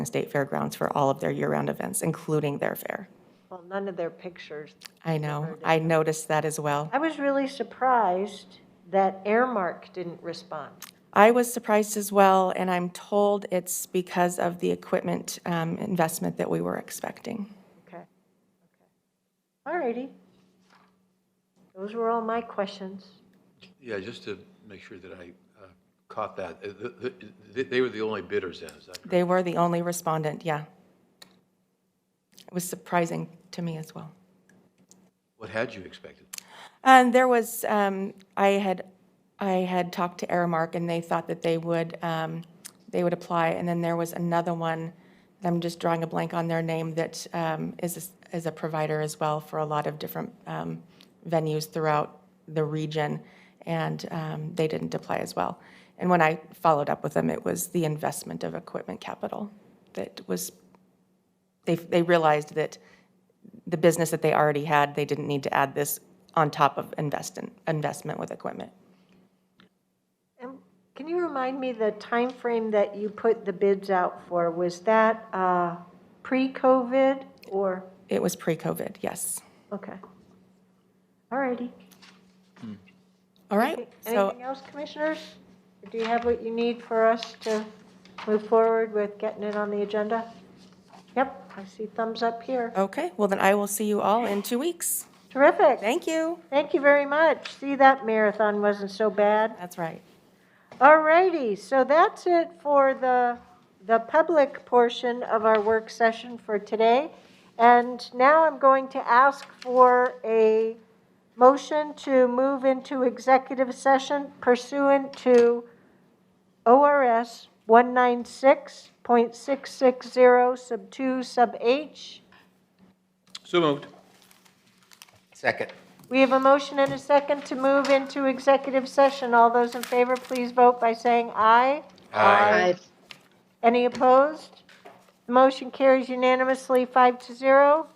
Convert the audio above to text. State Fairgrounds for all of their year-round events, including their fair. Well, none of their pictures. I know, I noticed that as well. I was really surprised that Airmark didn't respond. I was surprised as well, and I'm told it's because of the equipment um, investment that we were expecting. Okay. Okay. All righty. Those were all my questions. Yeah, just to make sure that I uh, caught that, uh, th- th- they were the only bidders then, is that correct? They were the only respondent, yeah. It was surprising to me as well. What had you expected? And there was, um, I had, I had talked to Aramark, and they thought that they would, um, they would apply. And then there was another one, and I'm just drawing a blank on their name, that um, is, a s- is a provider as well for a lot of different um, venues throughout the region, and um, they didn't apply as well. And when I followed up with them, it was the investment of equipment capital that was, they, they realized that the business that they already had, they didn't need to add this on top of invest in, investment with equipment. And can you remind me the time frame that you put the bids out for? Was that uh, pre-COVID or, It was pre-COVID, yes. okay. All righty. All right, so Anything else, commissioners? Or Do you have what you need for us to move forward with getting it on the agenda? Yep, I see thumbs up here. okay, well then I will see you all in two weeks. Terrific. Thank you. Thank you very much. See, that marathon wasn't so bad. That's right. All righty, so that's it for the, the public portion of our work session for today. And now I'm going to ask for a motion to move into executive session pursuant to ORS 196.660 sub 2 sub H. So moved. Second. We have a motion and a second to move into executive session. All those in favor, please vote by saying aye. Aye. Any opposed? The motion carries unanimously, five to zero.